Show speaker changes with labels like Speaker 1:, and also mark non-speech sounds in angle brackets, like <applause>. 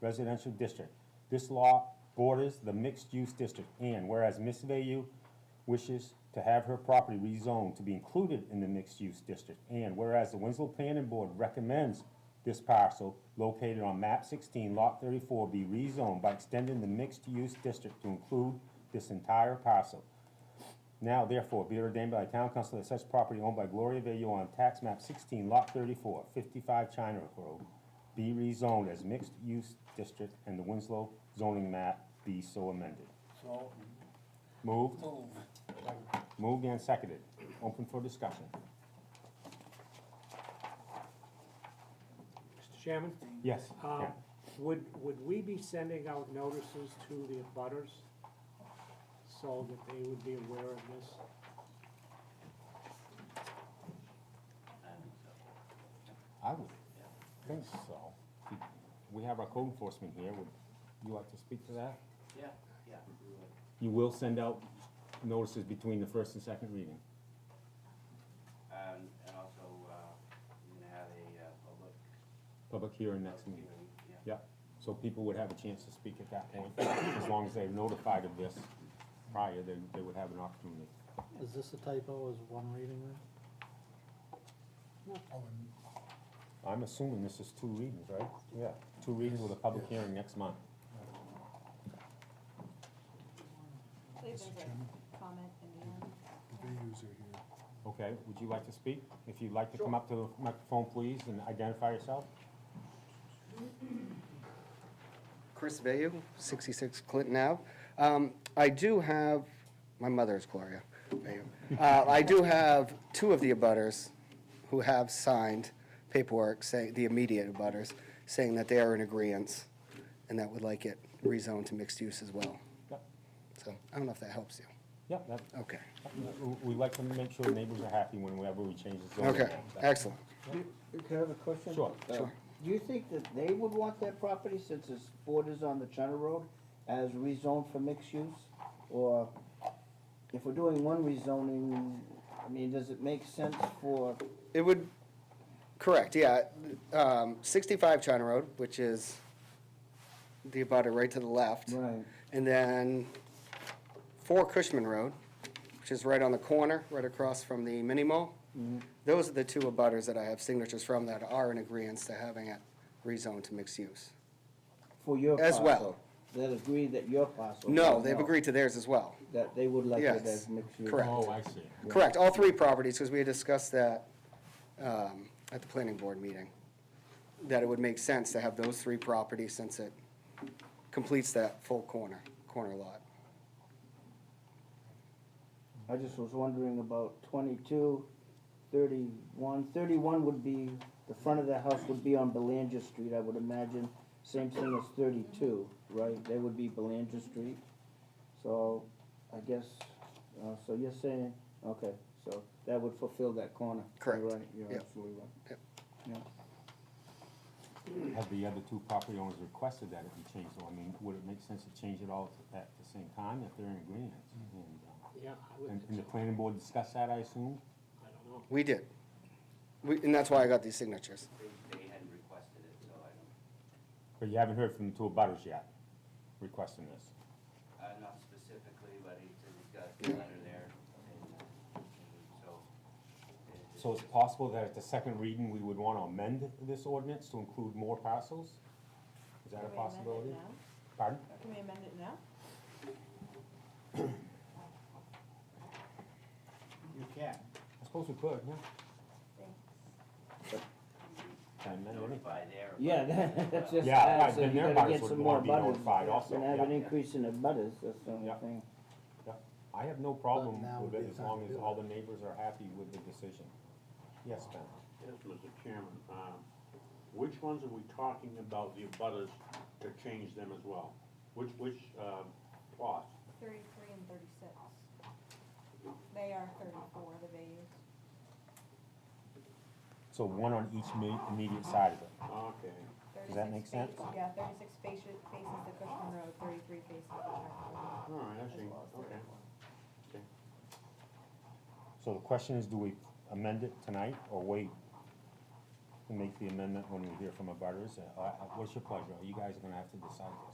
Speaker 1: residential district. This law borders the mixed-use district, and whereas Ms. Vayu wishes to have her property rezoned to be included in the mixed-use district, and whereas the Winslow Planning Board recommends this parcel located on map sixteen, lot thirty-four, be rezoned by extending the mixed-use district to include this entire parcel. Now therefore, be it ordained by the town council that such property owned by Gloria Vayu on tax map sixteen, lot 34, 55 China Road, be rezoned as mixed-use district and the Winslow zoning map be so amended.
Speaker 2: So,
Speaker 1: Moved,
Speaker 2: move.
Speaker 1: moved and seconded. Open for discussion.
Speaker 3: Mr. Chairman?
Speaker 1: Yes,
Speaker 3: um,
Speaker 1: Karen.
Speaker 3: Would, would we be sending out notices to the abutters so that they would be aware of this?
Speaker 1: I would think so. We have our code enforcement here. Would you like to speak to that?
Speaker 4: Yeah, yeah.
Speaker 1: You will send out notices between the first and second reading.
Speaker 4: And, Um, and also, uh, we're gonna have a, uh, public.
Speaker 1: Public hearing next
Speaker 4: public
Speaker 1: meeting.
Speaker 4: hearing, Yeah.
Speaker 1: Yeah, so people would have a chance to speak at that point, as long as they're notified of this prior, they, they would have an opportunity.
Speaker 5: Is this a typo, is one reading there?
Speaker 2: Oh, and
Speaker 1: I'm assuming this is two readings, right? Yeah. Two readings with a public hearing next month.
Speaker 6: believe
Speaker 2: Mr.
Speaker 6: there's
Speaker 2: Chairman?
Speaker 6: a comment in the end.
Speaker 2: the Vayus are here.
Speaker 1: Okay, would you like to speak? If you'd like to come up to the microphone, please, and identify yourself.
Speaker 7: Chris Vayu, 66 Clinton Ave. Um, I do have, my mother is Gloria Vayu. Uh, I do have two of the abutters who have signed paperwork saying, the immediate abutters, saying that they are in agreeance and that would like it rezoned to mixed use as well.
Speaker 1: Yep.
Speaker 7: So I don't know if that helps you.
Speaker 1: Yeah, that,
Speaker 7: Okay.
Speaker 1: we- we like to make sure neighbors are happy whenever we change the zoning.
Speaker 7: Okay, excellent.
Speaker 8: Can I have a question?
Speaker 1: Sure.
Speaker 8: Uh,
Speaker 7: Sure.
Speaker 8: Do you think that they would want that property since it's borders on the China Road as rezoned for mixed use? Or if we're doing one rezoning, I mean, does it make sense for,
Speaker 7: It would, correct, yeah. Um, 65 China Road, which is the abutter right to the left.
Speaker 8: right,
Speaker 7: And then four Cushman Road, which is right on the corner, right across from the mini mall. Those are the two abutters that I have signatures from that are in agreement to having it rezoned to mixed use.
Speaker 8: for your
Speaker 7: As
Speaker 8: parcel?
Speaker 7: well.
Speaker 8: That agree that your parcel?
Speaker 7: No, they've agreed to theirs as well.
Speaker 8: That they would like it
Speaker 7: Yes,
Speaker 8: as mixed use?
Speaker 7: correct.
Speaker 1: Oh, I see.
Speaker 7: Correct, all three properties, because we had discussed that um, at the planning board meeting, that it would make sense to have those three properties since it completes that full corner, corner lot.
Speaker 8: I just was wondering about 22, 31. 31 would be, the front of the house would be on Belanger Street, I would imagine. Same thing as thirty-two, right? They would be Belanger Street. So I guess, uh, so you're saying, okay, so that would fulfill that corner.
Speaker 7: Correct.
Speaker 8: You're right, you're
Speaker 7: Yep.
Speaker 8: absolutely right.
Speaker 7: Yep.
Speaker 8: Yeah.
Speaker 1: Have the other two property owners requested that it be changed, so I mean, would it make sense to change it all at the same time if they're in agreement?
Speaker 7: Mm-hmm.
Speaker 1: And, uh,
Speaker 3: Yeah, I would,
Speaker 1: And,
Speaker 3: think
Speaker 1: and the
Speaker 3: so.
Speaker 1: planning board discussed that, I assume?
Speaker 3: I don't know.
Speaker 7: We did. We- And that's why I got these signatures.
Speaker 4: They, they hadn't requested it, so I don't,
Speaker 1: But you haven't heard from the two abutters yet requesting this.
Speaker 4: uh, not specifically, but he, he's got the letter there. and, uh, and So. it-
Speaker 1: So it's possible that at the second reading, we would want to amend this ordinance to include more parcels? Is that a
Speaker 6: Can we amend it
Speaker 1: possibility?
Speaker 6: now?
Speaker 1: Pardon?
Speaker 6: Can we amend it now?
Speaker 2: You can.
Speaker 1: I suppose we could, yeah.
Speaker 6: Thanks.
Speaker 1: Can I amend it?
Speaker 4: Notify there.
Speaker 8: Yeah,
Speaker 4: but-
Speaker 8: <laughs> that- that's
Speaker 4: well,
Speaker 8: just,
Speaker 1: Yeah,
Speaker 8: that,
Speaker 1: right,
Speaker 8: so
Speaker 1: then
Speaker 8: you
Speaker 1: their
Speaker 8: gotta
Speaker 1: butters
Speaker 8: get
Speaker 1: would
Speaker 8: some
Speaker 1: wanna
Speaker 8: more
Speaker 1: be
Speaker 8: butters.
Speaker 1: notified also,
Speaker 8: And have an
Speaker 1: yeah.
Speaker 8: increase in the butters, that's the only
Speaker 1: Yeah.
Speaker 8: thing.
Speaker 1: I have no problem
Speaker 5: But now
Speaker 1: with
Speaker 5: would
Speaker 1: it
Speaker 5: be
Speaker 1: as
Speaker 5: the time
Speaker 1: long
Speaker 5: to
Speaker 1: as
Speaker 5: do
Speaker 1: all the neighbors are happy with the decision. Yes, Ben?
Speaker 9: Yes, Mr. Chairman, um, which ones are we talking about, the abutters to change them as well? Which, which, um, plots?
Speaker 6: Thirty-three and thirty-six. They are thirty-four, the values.
Speaker 1: So one on each ma- immediate side of it.
Speaker 9: Okay,
Speaker 1: Does that make sense?
Speaker 6: Yeah, thirty-six faces, faces the Cushman Road, thirty-three faces the China
Speaker 9: all right, I
Speaker 6: Road,
Speaker 9: see,
Speaker 6: as well as
Speaker 9: okay.
Speaker 6: 34.
Speaker 1: So the question is, do we amend it tonight or wait and make the amendment when we hear from abutters? Uh, uh, What's your pleasure? You guys are gonna have to decide this.